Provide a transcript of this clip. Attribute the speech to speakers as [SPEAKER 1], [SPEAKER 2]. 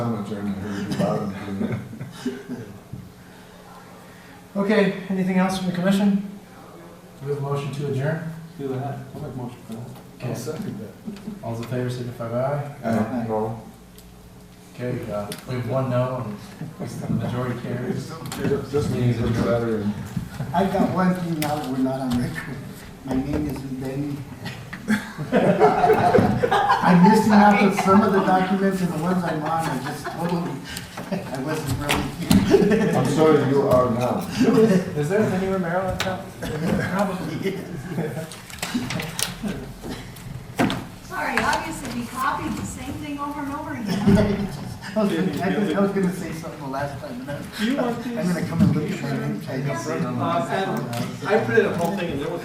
[SPEAKER 1] comments, Ernie, I heard you loud and clear.
[SPEAKER 2] Okay, anything else from the commission? Do we have a motion to adjourn?
[SPEAKER 3] Do that. I'll make motion for that.
[SPEAKER 2] Okay,
[SPEAKER 1] second
[SPEAKER 2] all those in favor signify by aye.
[SPEAKER 1] Uh, no.
[SPEAKER 2] Okay, uh, we have one no, and the majority carries.
[SPEAKER 1] This means it's better and
[SPEAKER 4] I've got one thing now that we're not on record. My name isn't Benny. I'm missing out on some of the documents and the ones I'm on, I just totally, I wasn't really here.
[SPEAKER 1] I'm sorry you are now.
[SPEAKER 2] Is there anywhere Maryland town?
[SPEAKER 4] Probably is.
[SPEAKER 5] Sorry, obviously we copied the same thing over and over again.
[SPEAKER 4] I was gonna- I just- I was gonna say something the last time, and I-
[SPEAKER 3] Do you want
[SPEAKER 4] I'm
[SPEAKER 3] these?
[SPEAKER 4] gonna come and look at my name tag.
[SPEAKER 3] Uh, and I printed a whole thing and there was